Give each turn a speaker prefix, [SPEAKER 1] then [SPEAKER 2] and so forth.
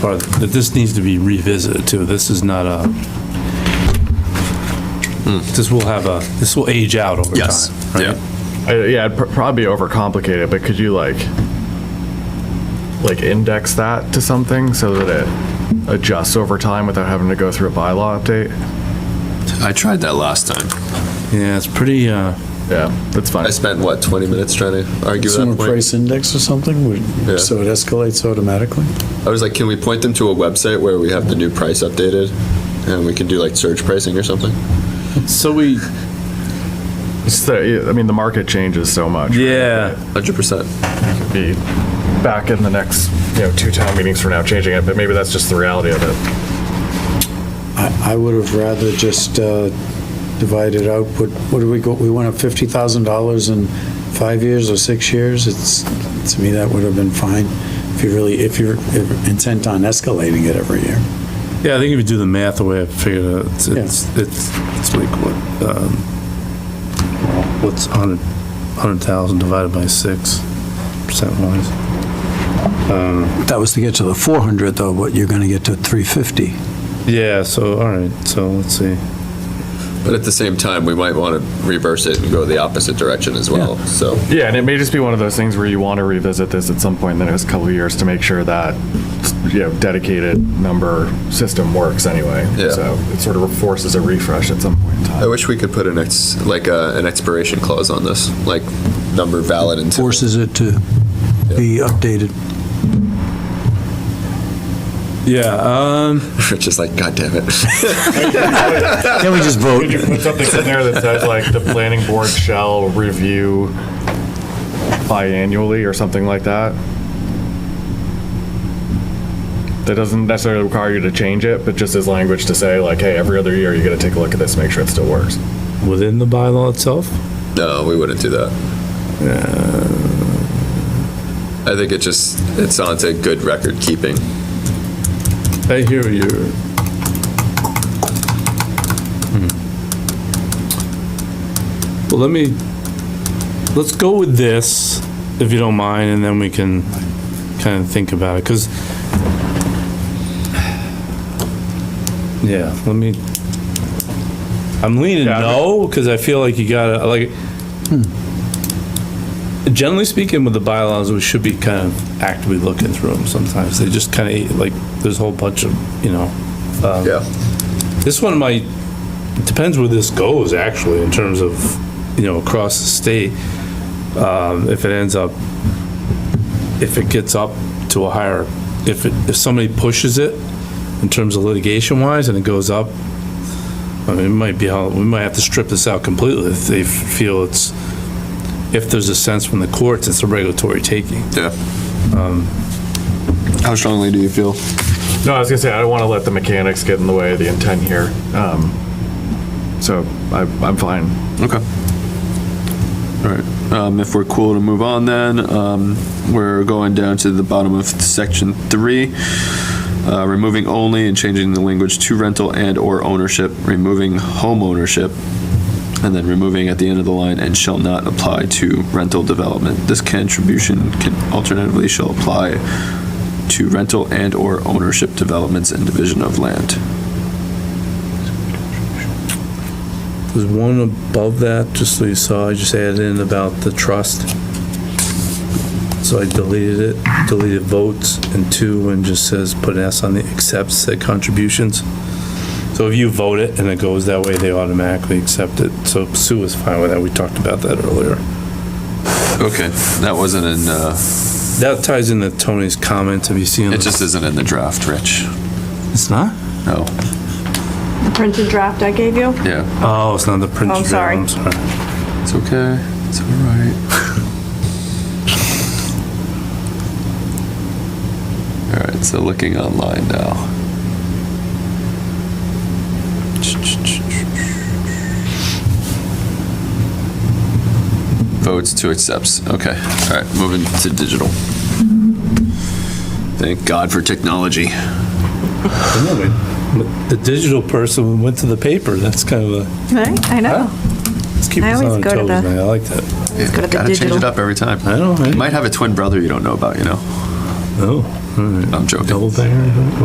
[SPEAKER 1] But that this needs to be revisited too. This is not a, this will have a, this will age out over time.
[SPEAKER 2] Yes.
[SPEAKER 1] right?
[SPEAKER 2] Yeah.
[SPEAKER 3] I, yeah, I'd pr- probably overcomplicate it, but could you like, like index that to something so that it adjusts over time without having to go through a bylaw update?
[SPEAKER 2] I tried that last time.
[SPEAKER 1] Yeah, it's pretty, uh,
[SPEAKER 3] Yeah, that's fine.
[SPEAKER 2] I spent, what, 20 minutes trying to argue
[SPEAKER 4] Consumer
[SPEAKER 2] that point?
[SPEAKER 4] price index or something, would-
[SPEAKER 2] Yeah.
[SPEAKER 4] so it escalates automatically?
[SPEAKER 2] I was like, can we point them to a website where we have the new price updated? And we can do like surge pricing or something?
[SPEAKER 1] so we,
[SPEAKER 3] It's the- I mean, the market changes so much.
[SPEAKER 1] yeah.
[SPEAKER 2] 100%.
[SPEAKER 3] Be back in the next, you know, two town meetings from now changing it, but maybe that's just the reality of it.
[SPEAKER 4] I, I would have rather just uh, divide it out, put, what do we go, we went up $50,000 in five years or six years? It's, to me, that would have been fine if you really, if you're intent on escalating it every year.
[SPEAKER 1] Yeah, I think if you do the math the way I figured it, it's,
[SPEAKER 4] Yeah.
[SPEAKER 1] it's, it's it's like what, um, what's 100, 100,000 divided by 6 percent wise?
[SPEAKER 4] That was to get to the 400 though, but you're going to get to 350.
[SPEAKER 1] Yeah, so, all right, so let's see.
[SPEAKER 2] But at the same time, we might want to reverse it and go the opposite direction as well. So,
[SPEAKER 3] Yeah, and it may just be one of those things where you want to revisit this at some point in the next couple of years to make sure that, you know, dedicated number system works anyway.
[SPEAKER 2] Yeah.
[SPEAKER 3] So it sort of forces a refresh at some point in
[SPEAKER 2] I
[SPEAKER 3] time.
[SPEAKER 2] wish we could put an ex, like uh an expiration clause on this, like number valid until.
[SPEAKER 4] Forces it to be updated.
[SPEAKER 1] Yeah, um,
[SPEAKER 2] Just like, God damn it.
[SPEAKER 4] Can we just vote?
[SPEAKER 3] Could you put something in there that says like the planning board shall review biannually or something like that? That doesn't necessarily require you to change it, but just as language to say like, hey, every other year you gotta take a look at this, make sure it still works.
[SPEAKER 1] within the bylaw itself?
[SPEAKER 2] No, we wouldn't do that. I think it just, it's on to good record keeping.
[SPEAKER 1] I hear you. Hmm. Well, let me, let's go with this, if you don't mind, and then we can kind of think about it, because, yeah, let me, I'm leaning
[SPEAKER 3] Yeah, I mean-
[SPEAKER 1] no, because I feel like you gotta, like, generally speaking, with the bylaws, we should be kind of actively looking through them sometimes. They just kind of, like, there's a whole bunch of, you know,
[SPEAKER 4] Um,
[SPEAKER 2] Yeah.
[SPEAKER 1] this one might, it depends where this goes, actually, in terms of, you know, across the state. Um, If it ends up, if it gets up to a higher, if, it- if somebody pushes it in terms of litigation wise and it goes up, I mean, it might be how, we might have to strip this out completely if they feel it's, if there's a sense from the courts, it's a regulatory taking.
[SPEAKER 2] Yeah. Um, How strongly do you feel?
[SPEAKER 3] No, I was gonna say, I don't wanna let the mechanics get in the way of the intent here. Um, So I, I'm fine.
[SPEAKER 2] Okay. All right. Um, if we're cool to move on, then um, we're going down to the bottom of section three, uh, removing only and changing the language to rental and or ownership, removing home ownership, and then removing at the end of the line and shall not apply to rental development. This contribution can alternatively shall apply to rental and or ownership developments and division of land.
[SPEAKER 1] There's one above that, just so you saw, I just added in about the trust. So I deleted it, deleted votes, and two, and just says, put an S on the accepts said contributions. So if you vote it and it goes that way, they automatically accept it. So Sue was fine with that, we talked about that earlier.
[SPEAKER 2] Okay, that wasn't in. Uh,
[SPEAKER 1] That ties into Tony's comments, have you seen?
[SPEAKER 2] It just isn't in the draft, Rich.
[SPEAKER 1] It's not?
[SPEAKER 2] No.
[SPEAKER 5] The printed draft I gave you?
[SPEAKER 2] Yeah.
[SPEAKER 1] Oh, it's not the print.
[SPEAKER 5] I'm sorry.
[SPEAKER 1] I'm sorry.
[SPEAKER 2] It's okay. It's all right. all right. So looking online now. Votes to accepts. Okay. All right. Moving to digital. Thank God for technology.
[SPEAKER 1] The digital person went to the paper, that's kind of a,
[SPEAKER 5] Right, I know.
[SPEAKER 1] let's keep
[SPEAKER 5] I
[SPEAKER 1] us
[SPEAKER 5] always
[SPEAKER 1] on
[SPEAKER 5] go
[SPEAKER 1] our
[SPEAKER 5] to
[SPEAKER 1] toes,
[SPEAKER 5] the-
[SPEAKER 1] man, I like that.
[SPEAKER 5] Let's go to the
[SPEAKER 2] Gotta change
[SPEAKER 5] digital.
[SPEAKER 2] it up every time.
[SPEAKER 1] I know, right?
[SPEAKER 2] Might have a twin brother you don't know about, you know?
[SPEAKER 1] Oh, All right.
[SPEAKER 2] I'm joking.
[SPEAKER 1] Double banger?